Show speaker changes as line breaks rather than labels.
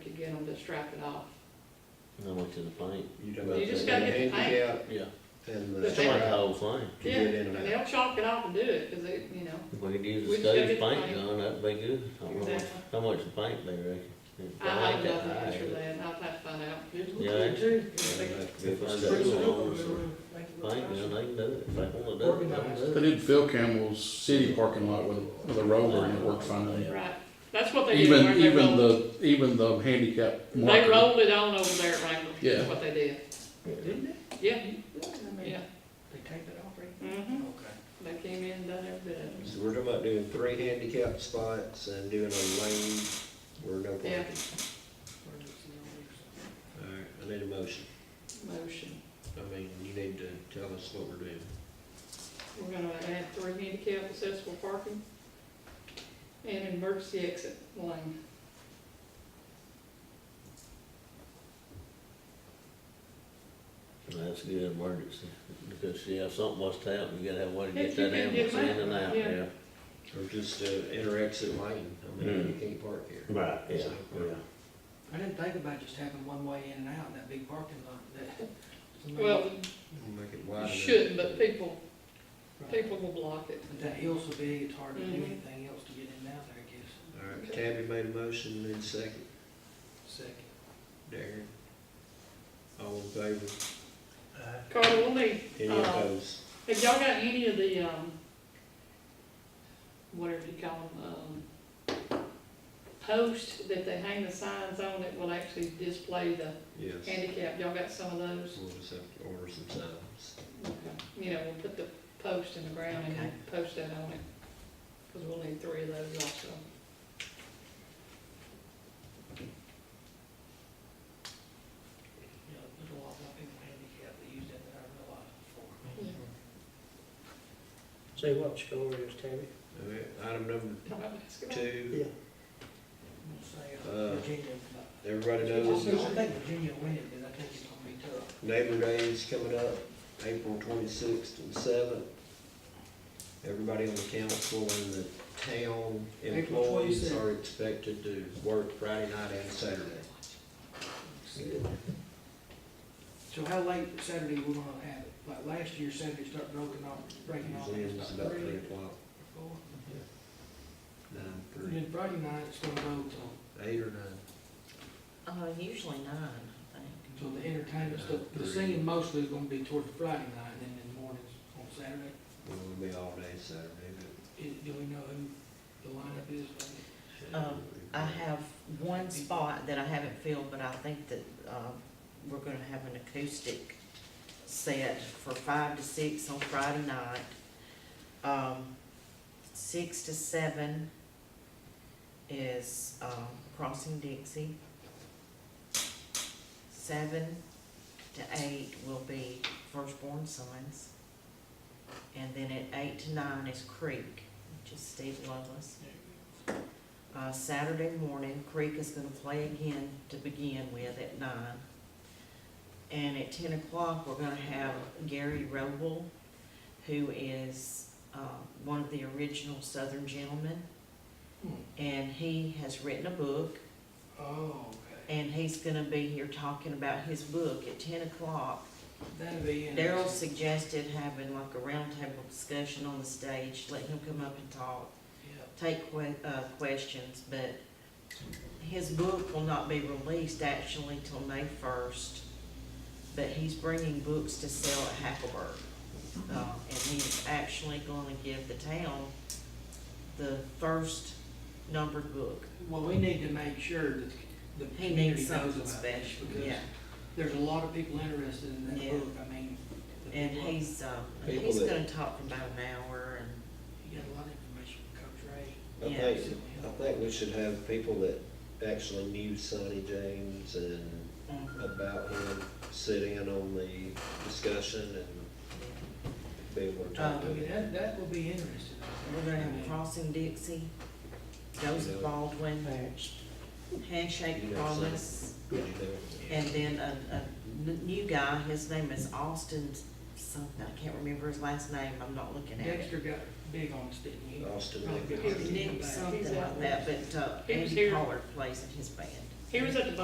get them to strap it off.
How much is the plane?
You talking
You
about the
just gotta get the
handicap
Yeah.
and
The
the
It's like the
strap
whole thing.
to
Yeah,
get in and
and
out.
they'll chalk it off and do it, cause they, you know,
We could use
We
a
just gotta
stage
get the
paint
paint.
gun, that'd be good. I don't know how much-
Exactly.
How much the paint they reckon?
I have
like that
nothing to
high,
answer
but
that, I'll have to find out.
Yeah,
Yeah,
If
that's
it's
good.
a little Paint gun, they can do it, if they wanna do it. they can do it.
They did Phil Campbell's city parking lot with, with a roller and it worked fine.
Right, that's what they did.
Even,
where they
even
rolled-
the, even the handicap
They
marker.
rolled it on over there at Wrangler,
Yeah.
is what they did,
Didn't they?
yeah,
They
yeah.
taped it off, right?
Mhm.
Okay.
They came in and done every bit of it.
So we're talking about doing three handicap spots and doing a lane where no parking.
Yeah.
Alright, I need a motion.
motion.
I mean, you need to tell us what we're doing.
We're gonna add three handicap accessible parking and an emergency exit lane.
That's a good emergency, because, yeah, if something was to happen, you gotta have a way to
If
get
you
that
can get
ambulance
them
in and
out,
out,
yeah.
yeah.
Or just a inter-exit lane, I mean, you can't park here.
Right, yeah,
So-
yeah.
I didn't think about just having one way in and out in that big parking lot that.
Well,
Make it
you
wide.
shouldn't, but people,
Right.
people will block it.
But that hill's so big, it's hard to do
Mhm.
anything else to get in and out there, I guess.
Alright, Tabby made a motion, then second,
Second.
Darren. All in favor?
Uh, Carter, we'll need,
Any
Uh,
opposed?
have y'all got any of the, um, whatever you call them, um, posts that they hang the signs on that will actually display the
Yes.
handicap? Y'all got some of those?
We'll just have to order some signs.
Okay. You know, we'll put the post in the ground and we'll post that on it, because we'll need three of those also.
You know, there's a lot of people handicapped that use that that I realized before.
Yeah.
Say what score it is, Tabby?
Alright, item number
Talk about basketball.
two,
I'm
Mm-hmm.
gonna say,
Uh,
uh, Virginia, but-
everybody
I
knows
think Virginia will win it, but I think it's gonna be tough.
Neighbor Day is coming up, April twenty-sixth and seventh. Everybody on the council and the town
April
employees
26th.
are expected to work Friday night and Saturday.
So how late Saturday we gonna have it? Like last year, Saturday start broken off, breaking off.
Usually it's about three o'clock,
Four.
nine,
And
three,
then Friday night, it's gonna go till,
eight or nine.
Uh, usually nine, I think.
till the entertainment stuff. The singing mostly is gonna be toward the Friday night, and then in the mornings on Saturday.
Well, it'll be all day Saturday,
Is, do we know who the lineup is?
but.
Um, I have one spot that I haven't filled, but I think that, uh, we're gonna have an acoustic set for five to six on Friday night. Um, six to seven is, um, Crossing Dixie. Seven to eight will be Firstborn Sons. And then at eight to nine is Creek, which is Steve Lovelace. Uh, Saturday morning, Creek is gonna play again to begin with at nine. And at ten o'clock, we're gonna have Gary Roble, who is, uh, one of the original Southern Gentlemen.
Hmm.
And he has written a book,
Oh, okay.
and he's gonna be here talking about his book at ten o'clock.
That'd be
Daryl
interesting.
suggested having like a roundtable discussion on the stage, let him come up and talk
Yeah.
take que- uh, questions, but his book will not be released actually till May first. But he's bringing books to sell at Hackleburg. Uh, and he's actually gonna give the town the first numbered book.
Well, we need to make sure that the
He
community
needs
knows about
something
this,
special,
because
yeah.
there's a lot of people interested in that
Yeah.
book, I mean. the
And
people-
he's, uh,
People
he's
that-
gonna talk for about an hour and,
You got a lot of information from Coach Ray.
I
yeah.
think, I think we should have people that actually knew Sonny James and
Mhm.
about him, sit in on the discussion and be able to talk
Um,
to
I mean,
him.
that, that will be interesting.
We're gonna have Crossing Dixie, Joseph Baldwin, Handshake
You know, so-
Promise.
You know,
And then a, a n- new guy, his name is Austin something, I can't remember his last name, I'm not looking at it.
Dexter got big on us, didn't he?
Austin,
Probably
Nick.
good.
Nick something like that, but uh,
He was
Andy
here.
Pollard plays in his band.
He was at the